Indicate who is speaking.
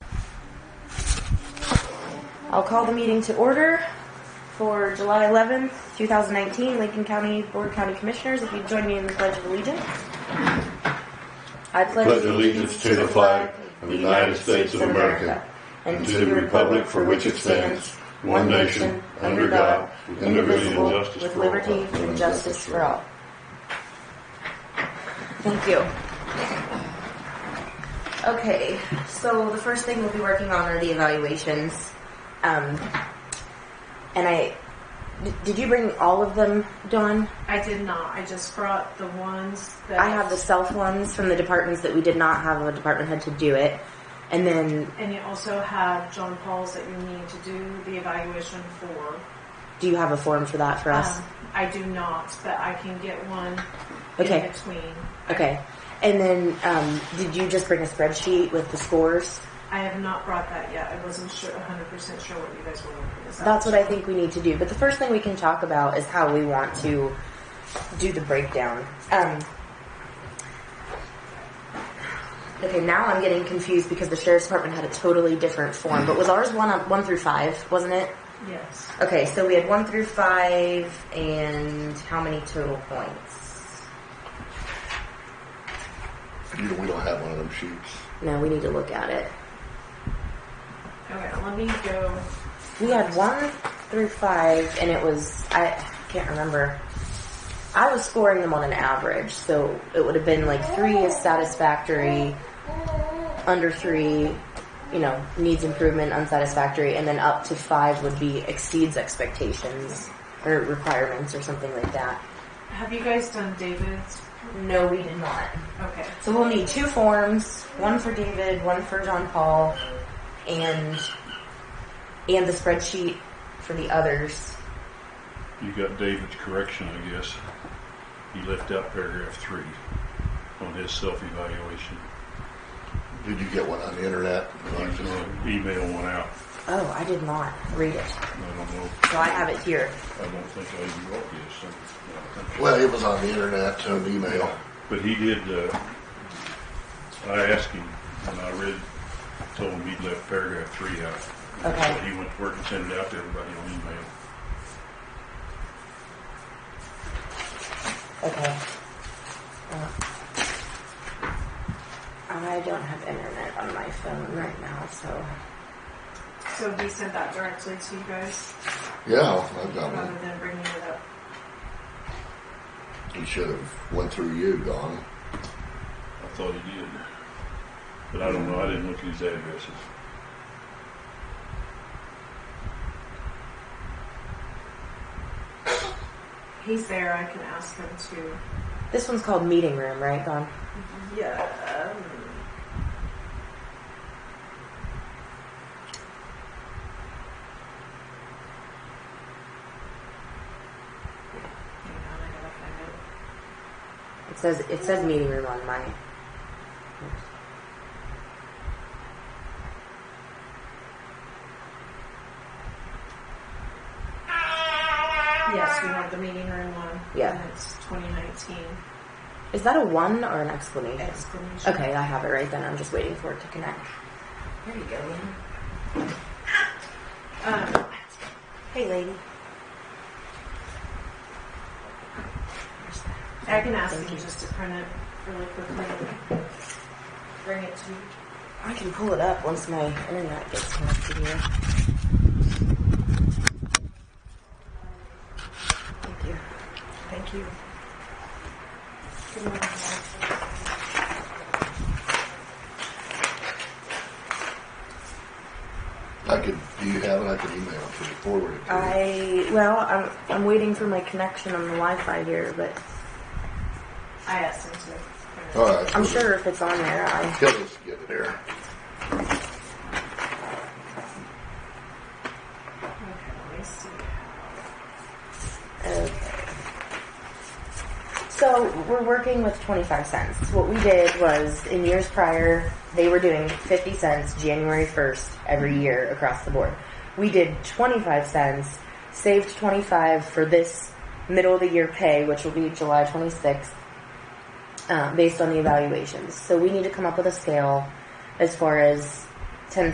Speaker 1: I'll call the meeting to order for July 11th, 2019, Lincoln County Board of County Commissioners. If you'd join me in the Pledge of Allegiance. I
Speaker 2: Pledge allegiance to the flag of the United States of America and to the republic for which it stands, one nation, under God, with indivisible,
Speaker 1: with liberty and justice for all. Thank you. Okay, so the first thing we'll be working on are the evaluations. Um, and I, d- did you bring all of them, Dawn?
Speaker 3: I did not. I just brought the ones that
Speaker 1: I have the self ones from the departments that we did not have a department head to do it. And then,
Speaker 3: And you also have John Paul's that you need to do the evaluation for.
Speaker 1: do you have a form for that for us?
Speaker 3: Um, I do not, but I can get one
Speaker 1: Okay.
Speaker 3: in between.
Speaker 1: Okay. And then, um, did you just bring a spreadsheet with the scores?
Speaker 3: I have not brought that yet. I wasn't sure, 100% sure what you guys were looking at.
Speaker 1: That's what I think we need to do. But the first thing we can talk about is how we want to do the breakdown. Um, okay, now I'm getting confused because the sheriff's department had a totally different form. But was ours one on, one through five, wasn't it?
Speaker 3: Yes.
Speaker 1: Okay, so we had one through five, and how many total points?
Speaker 2: You know, we don't have one of them sheets.
Speaker 1: No, we need to look at it.
Speaker 3: Okay, let me go.
Speaker 1: We had one through five, and it was I can't remember. I was scoring them on an average, so it would have been like three is satisfactory, under three, you know, needs improvement, unsatisfactory, and then up to five would be exceeds expectations or requirements or something like that.
Speaker 3: Have you guys done David's?
Speaker 1: No, we did not.
Speaker 3: Okay.
Speaker 1: So we'll need two forms, one for David, one for John Paul, and and the spreadsheet for the others.
Speaker 4: You got David's correction, I guess. He left out paragraph three on his self-evaluation.
Speaker 2: Did you get one on the internet?
Speaker 4: I was gonna email uh, one out.
Speaker 1: Oh, I did not read it.
Speaker 4: I don't know.
Speaker 1: So I have it here.
Speaker 4: I don't think I even wrote this. so I don't think-
Speaker 2: Well, it was on the internet, an email.
Speaker 4: But he did, uh, I asked him, and I read, told him he'd left paragraph three out.
Speaker 1: Okay.
Speaker 4: So He went to work and sent it out to everybody on email.
Speaker 1: Okay. Uh, I don't have internet on my phone right now, so
Speaker 3: So he sent that directly to you guys
Speaker 2: Yeah, I've got
Speaker 3: rather
Speaker 2: one.
Speaker 3: than bringing it up.
Speaker 2: He should have went through you, Don.
Speaker 4: I thought he did. But I don't know, I didn't look at his addresses.
Speaker 3: He's there. I can ask him to.
Speaker 1: this one's called meeting room, right, Don?
Speaker 3: Yeah. um, Hang on, I gotta find it.
Speaker 1: It says it says meeting room on my.
Speaker 3: Yes, we have the meeting room one.
Speaker 1: Yeah.
Speaker 3: And it's 2019
Speaker 1: Is that a one or an explanation?
Speaker 3: exclamation.
Speaker 1: Okay, I have it right then. I'm just waiting for it to connect.
Speaker 3: There you go. Lynn. Um,
Speaker 1: Hey, lady.
Speaker 3: I can ask
Speaker 1: Thank
Speaker 3: him
Speaker 1: you.
Speaker 3: just to print it really quickly. and Bring it to you.
Speaker 1: I can pull it up once my internet gets connected here. Thank you.
Speaker 3: Thank you. Good morning.
Speaker 2: I could, do you have it? I could email it to you, forward it to
Speaker 1: I
Speaker 2: you.
Speaker 1: well, I'm I'm waiting for my connection on the Wi-Fi here, but
Speaker 3: I asked him to.
Speaker 2: All right.
Speaker 1: I'm sure if it's on there, I
Speaker 2: He'll just get it there.
Speaker 3: Okay, let me see.
Speaker 1: Okay. So we're working with 25 cents. What we did was in years prior, they were doing 50 cents January 1st every year across the board. We did 25 cents, saved 25 for this middle of the year pay, which will be July um, 26th, uh, based on the evaluations. So we need to come up with a scale as far as